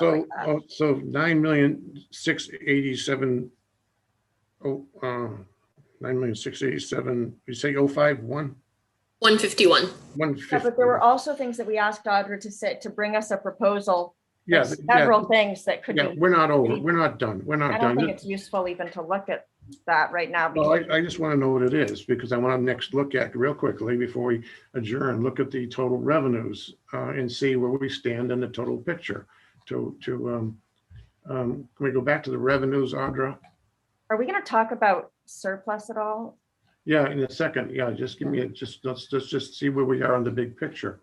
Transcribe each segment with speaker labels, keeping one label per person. Speaker 1: So,
Speaker 2: uh,
Speaker 1: oh, so nine million, six eighty-seven. Oh, uh, nine million, six eighty-seven, you say oh five, one,
Speaker 3: One fifty-one.
Speaker 1: one
Speaker 2: Yeah,
Speaker 1: fifty.
Speaker 2: but there were also things that we asked Audra to sit, to bring us a proposal.
Speaker 1: Yeah,
Speaker 2: There's
Speaker 1: yeah,
Speaker 2: Several things that could
Speaker 1: yeah,
Speaker 2: be,
Speaker 1: we're not over, we're not done, we're
Speaker 2: I
Speaker 1: not
Speaker 2: don't
Speaker 1: done.
Speaker 2: think it's useful even to look at that right now.
Speaker 1: Well,
Speaker 2: because
Speaker 1: I, I just want to know what it is, because I want to next look at, real quickly, before we adjourn, look at the total revenues uh, and see where we stand in the total picture to, to, um, um, can we go back to the revenues, Audra?
Speaker 2: Are we gonna talk about surplus at all?
Speaker 1: Yeah, in a second. Yeah, just give me, a just, let's, let's just see where we are in the big picture.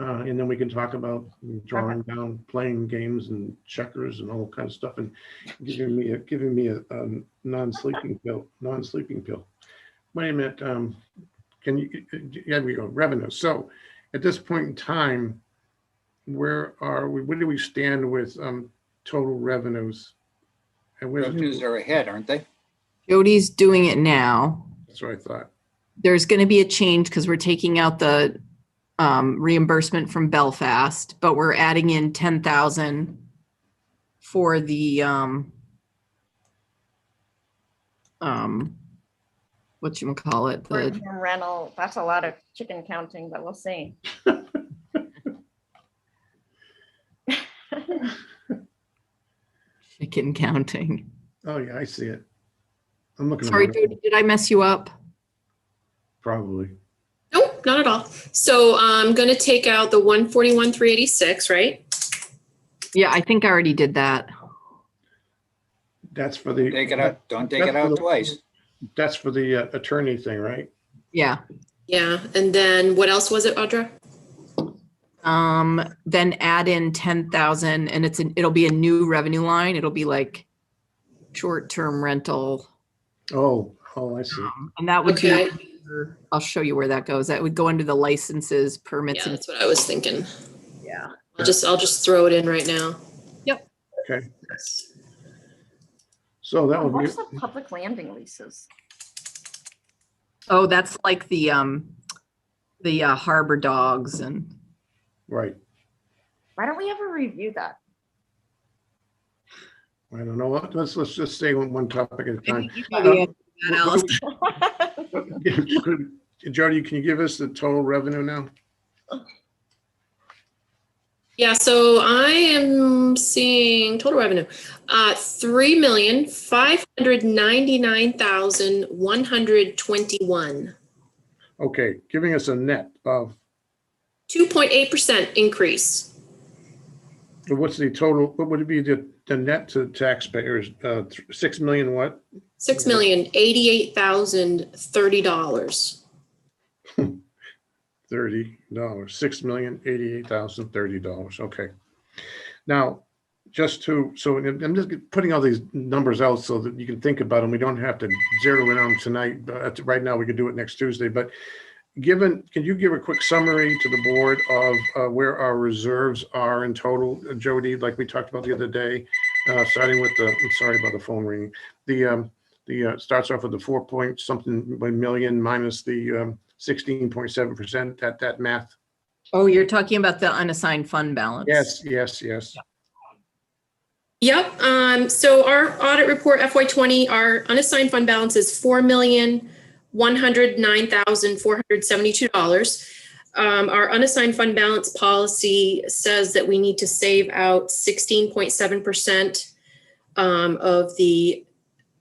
Speaker 1: Uh, and then we can talk about drawing down, playing games and checkers and all kind of stuff and giving me, a giving me a, um, non-sleeping pill, non-sleeping pill. Wait a minute, um, can you, yeah, we go, revenue. So at this point in time, where are we, where do we stand with, um, total revenues? And where's,
Speaker 4: Revenues are ahead, aren't they?
Speaker 5: Jody's doing it now.
Speaker 1: that's what I thought.
Speaker 5: There's going to be a change because we're taking out the um, reimbursement from Belfast, but we're adding in ten thousand for the um, um, what you call it, the
Speaker 2: Short-term Rental, that's a lot of chicken counting, but we'll see.
Speaker 5: chicken counting.
Speaker 1: Oh, yeah, I see it. I'm looking. at
Speaker 5: Sorry,
Speaker 1: it.
Speaker 5: Jody, did I mess you up?
Speaker 1: Probably.
Speaker 3: Nope, not at all. So I'm gonna take out the one forty-one, three eighty-six, right?
Speaker 5: Yeah, I think I already did that.
Speaker 1: That's for the.
Speaker 4: Take it out, don't take
Speaker 1: that's
Speaker 4: it
Speaker 1: for
Speaker 4: out
Speaker 1: the-
Speaker 4: twice.
Speaker 1: That's for the uh, attorney thing, right?
Speaker 5: Yeah.
Speaker 3: Yeah, and then what else was it, Audra?
Speaker 5: Um, then add in ten thousand and it's an, it'll be a new revenue line. It'll be like short-term rental.
Speaker 1: Oh, oh, I see.
Speaker 5: Um, And that would
Speaker 3: Okay,
Speaker 5: be, I'll show you where that goes. That would go under the licenses,
Speaker 3: yeah,
Speaker 5: permits and,
Speaker 3: that's what I was thinking.
Speaker 5: yeah.
Speaker 3: I'll just, I'll just throw it in right now.
Speaker 5: Yep.
Speaker 1: Okay. So that would be,
Speaker 2: What's the public landing leases?
Speaker 5: Oh, that's like the, um, the uh, harbor dogs and
Speaker 1: right.
Speaker 2: Why don't we ever review that?
Speaker 1: I don't know. Let- Let's, let's just stay on one topic at a
Speaker 5: I
Speaker 1: time.
Speaker 5: think you know the answer to that, Alice.
Speaker 1: Jody, can you give us the total revenue now?
Speaker 3: Yeah, so I am seeing total revenue, uh, three million, five hundred ninety-nine thousand, one hundred twenty-one.
Speaker 1: Okay, giving us a net of,
Speaker 3: Two point eight percent increase.
Speaker 1: what's the total, what would it be the, the net to taxpayers? Uh, th- Six million what?
Speaker 3: Six million eighty-eight thousand thirty dollars.
Speaker 1: thirty dollars, six million eighty-eight thousand thirty dollars, okay. Now, just to, so I'm I'm just putting all these numbers out so that you can think about them. We don't have to zero in on them tonight, but right now we could do it next Tuesday, but given, can you give a quick summary to the board of uh, where our reserves are in total, Jody, like we talked about the other day? Uh, starting with the, I'm sorry about the phone ringing, the, um, the, uh, starts off with the four point something million minus the, um, sixteen point seven percent, that, that math?
Speaker 5: Oh, you're talking about the unassigned fund balance?
Speaker 1: Yes, yes, yes.
Speaker 3: Yep, um, so our audit report FY twenty, our unassigned fund balance is four million, one hundred nine thousand, four hundred seventy-two dollars. Um, our unassigned fund balance policy says that we need to save out sixteen point seven percent um, of the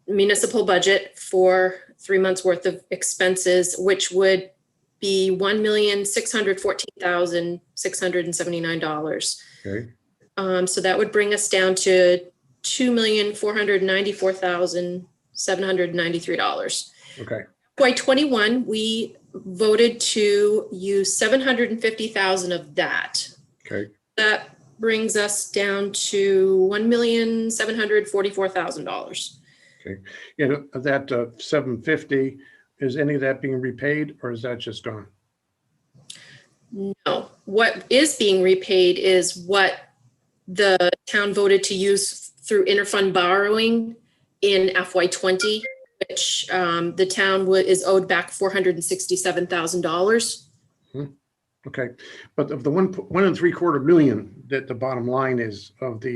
Speaker 3: municipal budget for three months' worth of expenses, which would be one million, six hundred fourteen thousand, six hundred and seventy-nine dollars.
Speaker 1: Okay,
Speaker 3: Um, so that would bring us down to two million, four hundred ninety-four thousand, seven hundred ninety-three dollars.
Speaker 1: okay,
Speaker 3: FY twenty-one, we voted to use seven hundred and fifty thousand of that.
Speaker 1: okay.
Speaker 3: That brings us down to one million, seven hundred forty-four thousand dollars.
Speaker 1: You know, of uh, that seven fifty, is any of that being repaid or is that just gone?
Speaker 3: No, what is being repaid is what the town voted to use through interfund borrowing in FY twenty, which um, the town wa- is owed back four hundred and sixty-seven thousand dollars.
Speaker 1: Hmm. Okay, but of the one, one and three quarter million that the bottom line is of the